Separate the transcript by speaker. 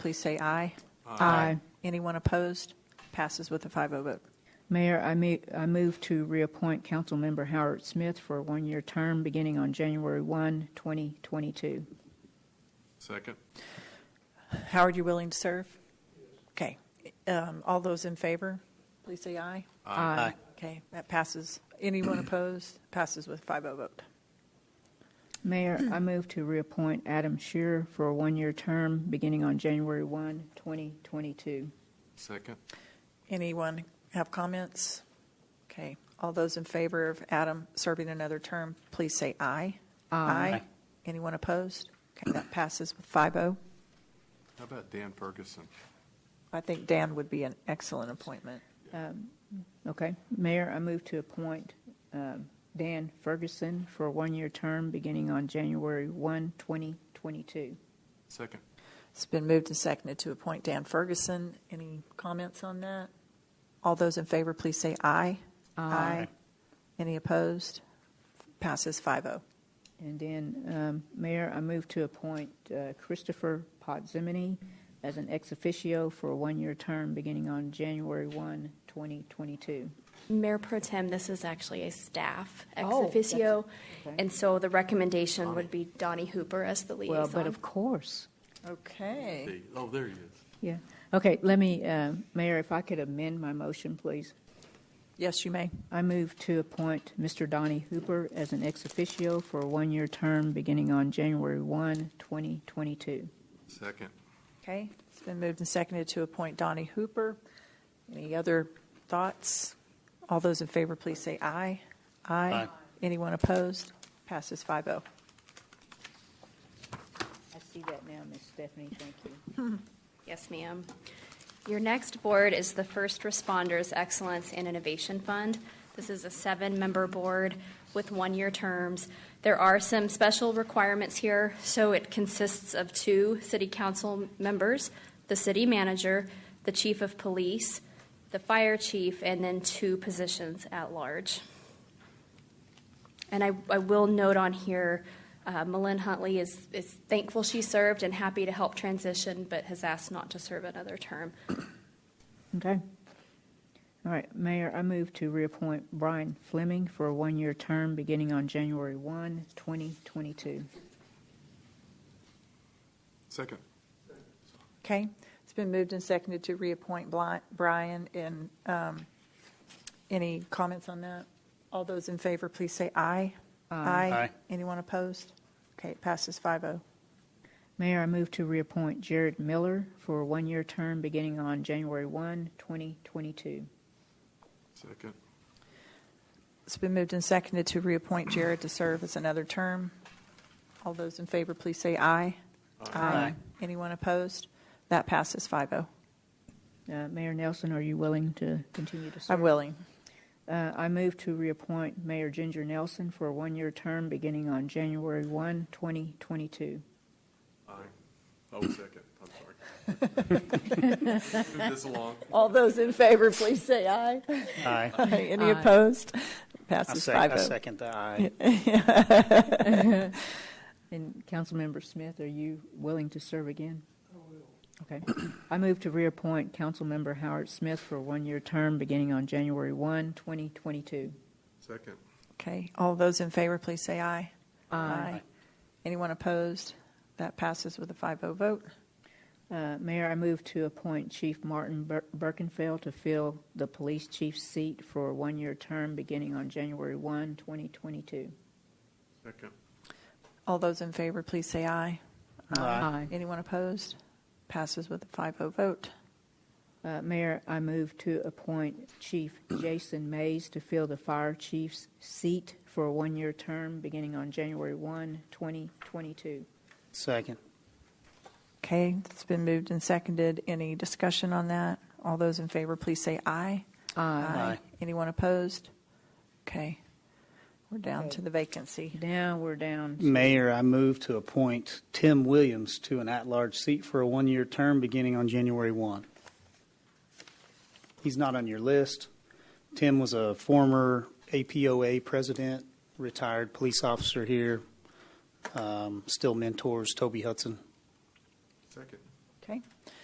Speaker 1: please say aye.
Speaker 2: Aye.
Speaker 1: Anyone opposed? Passes with a 5-0 vote.
Speaker 2: Mayor, I move, I move to reappoint Councilmember Howard Smith for a one-year term beginning on January 1, 2022.
Speaker 3: Second.
Speaker 1: Howard, you willing to serve? Okay. Um, All those in favor, please say aye.
Speaker 2: Aye.
Speaker 1: Okay, that passes. Anyone opposed? Passes with a 5-0 vote.
Speaker 2: Mayor, I move to reappoint Adam Shearer for a one-year term beginning on January 1, 2022.
Speaker 3: Second.
Speaker 1: Anyone have comments? Okay, all those in favor of Adam serving another term, please say aye. Aye. Anyone opposed? Okay, that passes with oh. 5-0.
Speaker 3: How about Dan Ferguson?
Speaker 1: I think Dan would be an excellent appointment.
Speaker 2: Okay. Mayor, I move to appoint um, Dan Ferguson for a one-year term beginning on January 1, 2022.
Speaker 3: Second.
Speaker 1: It's been moved and seconded to appoint Dan Ferguson. Any comments on that? All those in favor, please say aye. Aye. Any opposed? Passes oh. 5-0.
Speaker 2: And then, um, Mayor, I move to appoint uh, Christopher Potzimini as an ex officio for a one-year term beginning on January 1, 2022.
Speaker 4: Mayor Pro Tem, this is actually a staff ex
Speaker 2: Oh, that's
Speaker 4: officio,
Speaker 2: it. Okay.
Speaker 4: and so the recommendation would be Donnie Hooper as the
Speaker 2: Well, but
Speaker 4: liaison.
Speaker 2: of course.
Speaker 1: Okay.
Speaker 3: Hey, Oh, there he is.
Speaker 2: Yeah. Okay, let me, uh, Mayor, if I could amend my motion, please.
Speaker 1: Yes, you may.
Speaker 2: I move to appoint Mr. Donnie Hooper as an ex officio for a one-year term beginning on January 1, 2022.
Speaker 3: Second.
Speaker 1: Okay, it's been moved and seconded to appoint Donnie Hooper. Any other thoughts? All those in favor, please say aye. Aye. Anyone opposed? Passes oh. 5-0.
Speaker 2: I see that now, Ms. Stephanie, thank you.
Speaker 4: Yes, ma'am. Your next board is the First Responders Excellence and Innovation Fund. This is a seven-member board with one-year terms. There are some special requirements here, so it consists of two city council members, the city manager, the chief of police, the fire chief, and then two positions at large. And I, I will note on here, uh, Malin Huntley is, is thankful she served and happy to help transition, but has asked not to serve another term.
Speaker 2: Okay. All right, Mayor, I move to reappoint Brian Fleming for a one-year term beginning on January 1, 2022.
Speaker 3: Second.
Speaker 1: Okay, it's been moved and seconded to reappoint Bli- Brian, and um, any comments on that? All those in favor, please say aye. Aye. Anyone opposed? Okay, it passes oh. 5-0.
Speaker 2: Mayor, I move to reappoint Jared Miller for a one-year term beginning on January 1, 2022.
Speaker 3: Second.
Speaker 1: It's been moved and seconded to reappoint Jared to serve as another term. All those in favor, please say aye. Aye. Anyone opposed? That passes oh. 5-0.
Speaker 2: Uh, Mayor Nelson, are you willing to continue to serve?
Speaker 1: I'm willing.
Speaker 2: Uh, I move to reappoint Mayor Ginger Nelson for a one-year term beginning on January 1, 2022.
Speaker 3: Aye. Oh, second. I'm sorry. Move this along.
Speaker 1: All those in favor, please say aye.
Speaker 5: Aye.
Speaker 1: Any
Speaker 2: Aye.
Speaker 1: opposed?
Speaker 5: I
Speaker 1: Passes oh.
Speaker 5: sec- I
Speaker 1: 5-0.
Speaker 5: second the aye.
Speaker 2: And Councilmember Smith, are you willing to serve again? I will. Okay. I move to reappoint Councilmember Howard Smith for a one-year term beginning on January 1, 2022.
Speaker 3: Second.
Speaker 1: Okay, all those in favor, please say aye.
Speaker 2: Aye.
Speaker 1: Anyone opposed? That passes with a 5-0 vote.
Speaker 2: Uh, Mayor, I move to appoint Chief Martin Bir- Birkenfeld to fill the police chief's seat for a one-year term beginning on January 1, 2022.
Speaker 3: Second.
Speaker 1: All those in favor, please say aye.
Speaker 2: Uh-huh.
Speaker 5: Aye.
Speaker 1: Anyone opposed? Passes with a 5-0 vote.
Speaker 2: Uh, Mayor, I move to appoint Chief Jason Mays to fill the fire chief's seat for a one-year term beginning on January 1, 2022.
Speaker 5: Second.
Speaker 1: Okay, it's been moved and seconded. Any discussion on that? All those in favor, please say aye.
Speaker 5: Aye.
Speaker 1: Anyone opposed? Okay, we're down to the vacancy.
Speaker 2: Now we're down.
Speaker 5: Mayor, I move to appoint Tim Williams to an at-large seat for a one-year term beginning on January 1. He's not on your list. Tim was a former APOA president, retired police officer here, um, still mentors Toby Hudson.
Speaker 3: Second.
Speaker 1: Okay. Okay.